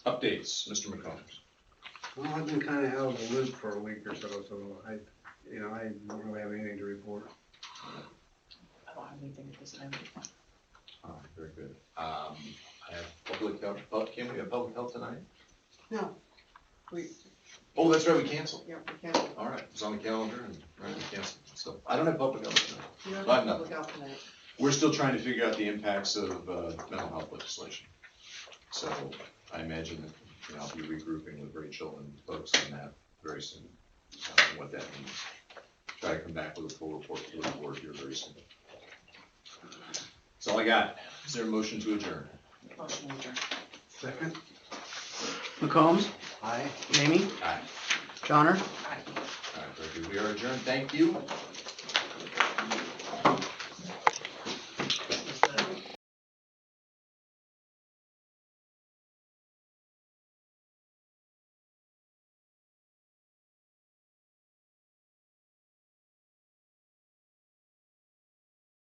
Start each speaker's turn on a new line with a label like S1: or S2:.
S1: Updates, Mr. McCombs.
S2: Well, I've been kinda out of the loop for a week or so, so I, you know, I don't really have anything to report.
S3: Oh, I don't have anything at this time.
S1: Oh, very good. Um, I have public health, oh, can we have public health tonight?
S3: No. We,
S1: Oh, that's right, we canceled.
S3: yeah, we can't.
S1: All right, it's on the calendar and, right, we canceled. So I don't have public health tonight.
S3: You don't
S1: But
S3: have
S1: no.
S3: public health tonight.
S1: We're still trying to figure out the impacts of, uh, mental health legislation. So I imagine that, you know, I'll be regrouping with Rachel and folks on that very soon, uh, what that means. Try to come back with a full report to the board here very soon. That's all I got. Is there a motion to adjourn?
S3: Motion to adjourn.
S2: Second,
S4: McCombs,
S2: aye.
S4: Mamie,
S1: Aye.
S4: Johnner.
S3: Aye.
S1: All right, very good. We are adjourned. Thank you.